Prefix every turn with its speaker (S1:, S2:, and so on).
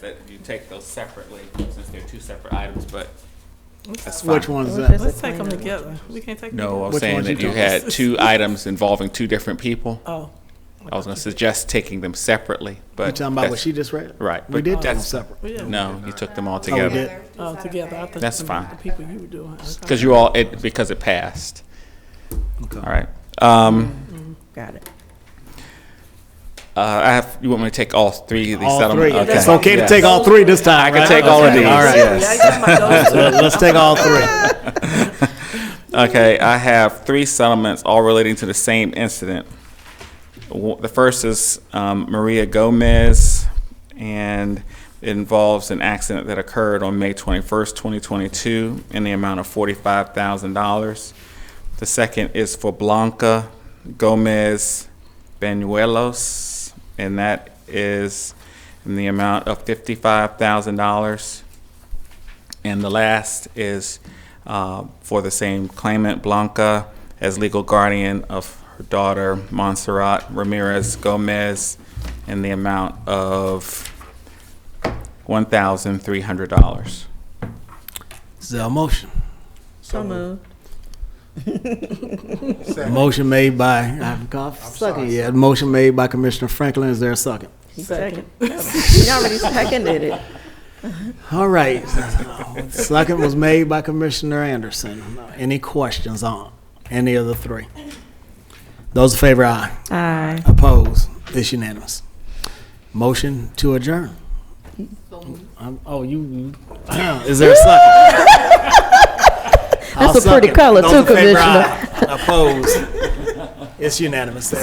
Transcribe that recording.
S1: that you take those separately, since they're two separate items, but that's fine.
S2: Which one's that?
S3: Let's take them together. We can't take them.
S1: No, I was
S2: Which
S1: saying
S2: ones you
S1: that you
S2: talking-
S1: had two items involving two different people.
S3: Oh.
S1: I was gonna suggest taking them separately, but.
S2: You talking about what
S1: that's-
S2: she just read?
S1: Right,
S2: We
S1: but
S2: did take them
S1: that's-
S2: separate.
S3: Yeah.
S1: No, you took them all
S2: we
S1: together.
S2: did.
S3: Oh, together. I thought
S1: That's
S3: the-
S1: fine.
S3: The people you were doing. Okay.
S1: Because you all, it, because it passed.
S2: Okay.
S1: All right. Um,
S4: Got it.
S1: uh, I have, you want me to take all three of these
S2: All three.
S1: settlements?
S2: It's okay to
S1: Yes.
S2: take all three this time,
S1: I can
S2: right?
S1: take all of
S2: Okay,
S1: these.
S2: All right,
S3: Yeah, you talking about those two.
S2: Let- let's take all three.
S1: Okay, I have three settlements, all relating to the same incident. W- The first is um, Maria Gomez, and it involves an accident that occurred on May 21st, 2022, in the amount of $45,000. The second is for Blanca Gomez Banuelos, and that is in the amount of $55,000. And the last is uh, for the same claimant, Blanca, as legal guardian of her daughter, Montserrat Ramirez Gomez, in the amount of $1,300.
S2: Is there a motion?
S4: So moved.
S2: Motion made by, I'm cough, second, yeah, motion made by Commissioner Franklin, is there a second?
S4: He second. He already seconded it.
S2: All right, second was made by Commissioner Anderson. Any questions on any of the three? Those in favor, aye.
S4: Aye.
S2: Opposed? It's unanimous. Motion to adjourn. Um, Oh, you, you- is there a second? That's
S4: a pretty color too, Commissioner.
S2: Opposed? It's unanimous.